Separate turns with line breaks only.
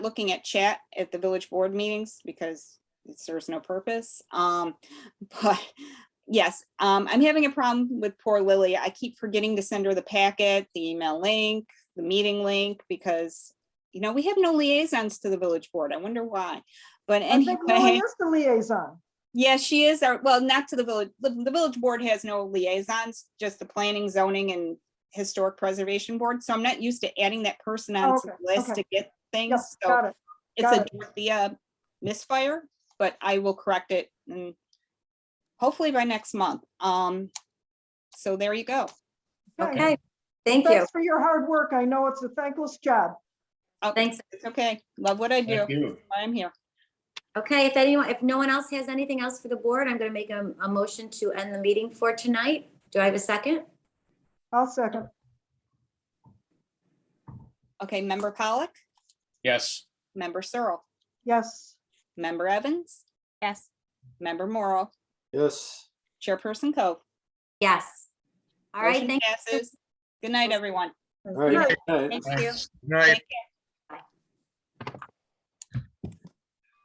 looking at chat at the village board meetings because it serves no purpose. Um, but yes, um, I'm having a problem with poor Lily. I keep forgetting to send her the packet, the email link, the meeting link, because, you know, we have no liaisons to the village board. I wonder why. But
I think Lily
anyway,
is the liaison.
yeah, she is our, well, not to the village, the, the village board has no liaisons, just the planning, zoning and historic preservation board. So I'm not used to adding that person
Oh,
on to
okay,
the list
okay.
to get
Yep,
things. So
got it.
it's a
Got
Dorothea misfire, but I will correct it and hopefully by next month. Um, so there you go.
Okay.
Okay, thank you.
Thanks for your hard work. I know it's a thankless job.
Oh,
Thanks.
It's okay. Love what I do.
Thank you.
I'm here.
Okay, if anyone, if no one else has anything else for the board, I'm going to make a, a motion to end the meeting for tonight. Do I have a second?
I'll second.
Okay, member Pollock,
Yes.
member Searle,
Yes.
member Evans,
Yes.
member Morrow,
Yes.
chairperson Cove.
Yes. All right,
Motion
thank you.
passes. Good night, everyone.
All right.
Good night.
Good night.
Thank you.
Right.
Take care.